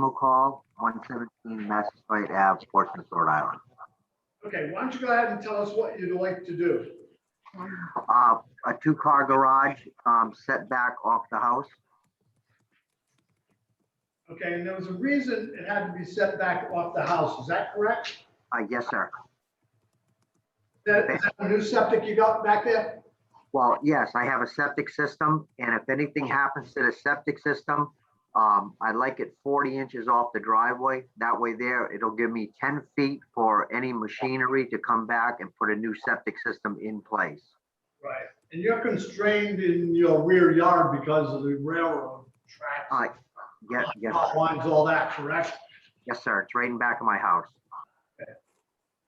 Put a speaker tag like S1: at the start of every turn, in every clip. S1: Animal call, 117 Massasoit Ave, Portsmouth, Rhode Island.
S2: Okay, why don't you go ahead and tell us what you'd like to do?
S1: Uh, A two-car garage um, set back off the house.
S2: Okay, and there was a reason it had to be set back off the house, is that correct?
S1: Uh, Yes, sir.
S2: That, is that a new septic you got back there?
S1: Well, yes, I have a septic system, and if anything happens to the septic system, um, I'd like it 40 inches off the driveway. That way there, it'll give me 10 feet for any machinery to come back and put a new septic system in place.
S2: Right. And you're constrained in your rear yard because of the railroad
S1: Uh,
S2: tracks,
S1: Yes, yes,
S2: lot lines, all that, correct?
S1: yes, sir. It's right in back of my house.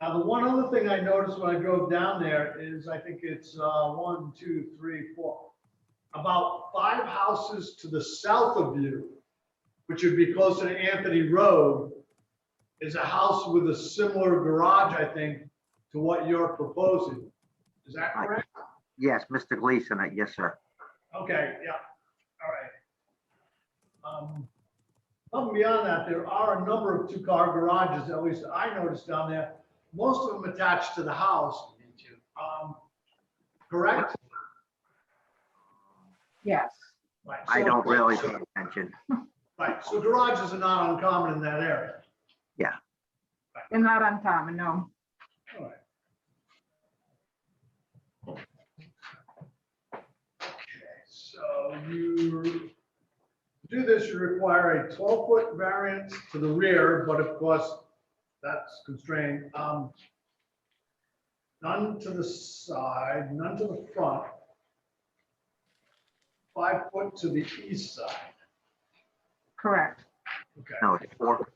S2: Now, the one other thing I noticed when I drove down there is I think it's uh, one, two, three, four. About five houses to the south of you, which would be closer to Anthony Road, is a house with a similar garage, I think, to what you're proposing. Is that
S1: Right.
S2: correct?
S1: Yes, Mr. Gleason, uh, yes, sir.
S2: Okay, yeah, all right. Um, Above and beyond that, there are a number of two-car garages, at least I noticed down there, most of them attached to the house. Um, Correct?
S3: Yes,
S2: Right,
S1: I
S2: so-
S1: don't really pay attention.
S2: Right, so garages are not uncommon in that area.
S3: they're not uncommon, no.
S2: All right. Okay, so you, to do this, you require a twelve-foot variance to the rear, but of course, that's constrained. Um, None to the side, none to the front. Five foot to the east side,
S3: Correct.
S2: okay.
S1: No, it's four.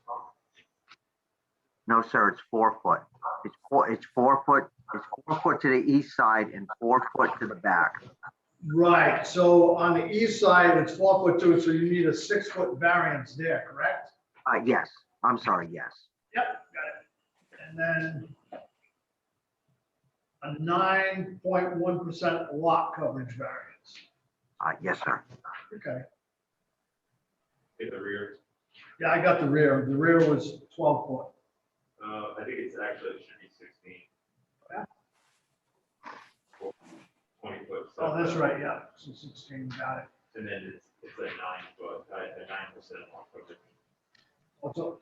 S1: No, sir, it's four foot. It's four, it's four foot, it's four foot to the east side and four foot to the back.
S2: Right, so on the east side, it's four foot two, so you need a six-foot variance there, correct?
S1: Uh, yes, I'm sorry, yes.
S2: Yep, got it. And then a nine point one percent lot coverage variance.
S1: Uh, yes, sir.
S2: Okay,
S4: in the rear.
S2: yeah, I got the rear. The rear was twelve foot.
S4: Uh, I think it's actually, it should be sixteen.
S2: Yeah.
S4: Twenty foot.
S2: Oh, that's
S4: setback.
S2: right, yeah, so sixteen, got it.
S4: And then it's, it's a nine foot, uh, a nine percent long foot.
S2: Also, Oh,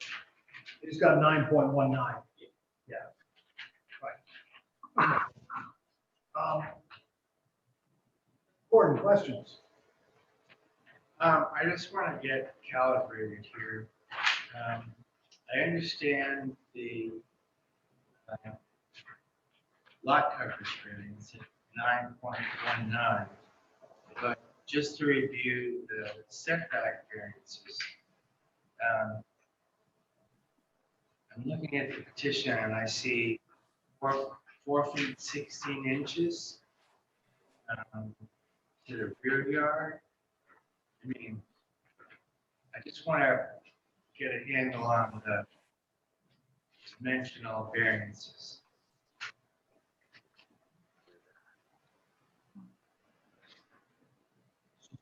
S2: he's got nine point one nine. Yeah. Right. Um, Gordon, questions?
S5: Um, I just want to get calibrated here. Um, I understand the uh, lot coverage variance at nine point one nine. But just to review the setback variances. um, I'm looking at the petition and I see four, four feet sixteen inches um, to the rear yard. I mean, I just want to get a handle on the dimensional variances.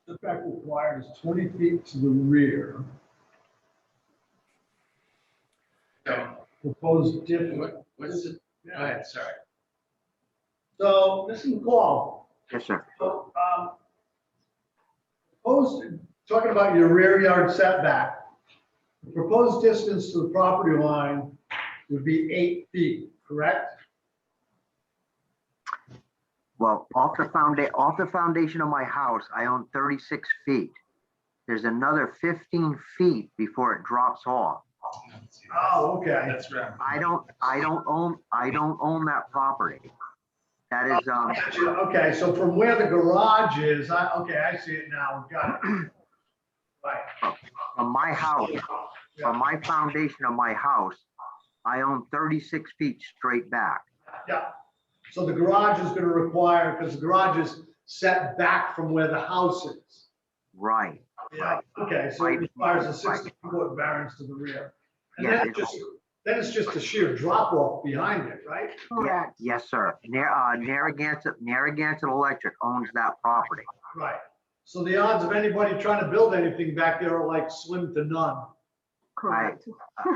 S2: Setback required is twenty feet to the rear.
S5: So
S2: Proposed difference.
S5: what, what's the, go ahead, sorry.
S2: So, Mr. McCall,
S1: Yes, sir.
S2: so, um, proposed, talking about your rear yard setback, the proposed distance to the property line would be eight feet, correct?
S1: Well, off the founda, off the foundation of my house, I own thirty-six feet. There's another fifteen feet before it drops off.
S2: Oh, okay.
S5: That's right.
S1: I don't, I don't own, I don't own that property. That is, um,
S2: Okay, so from where the garage is, I, okay, I see it now, got it. Right,
S1: from my house, from my foundation of my house, I own thirty-six feet straight back.
S2: yeah. So the garage is gonna require, because the garage is set back from where the house is.
S1: Right,
S2: Yeah, okay, so it requires a sixty-foot variance to the rear. And
S1: Yeah,
S2: then
S1: it-
S2: it's just, then it's just a sheer drop-off behind it, right?
S3: Correct.
S1: yes, sir. Nar- uh, Narragansett, Narragansett Electric owns that property.
S2: Right. So the odds of anybody trying to build anything back there are like slim to none.
S3: correct.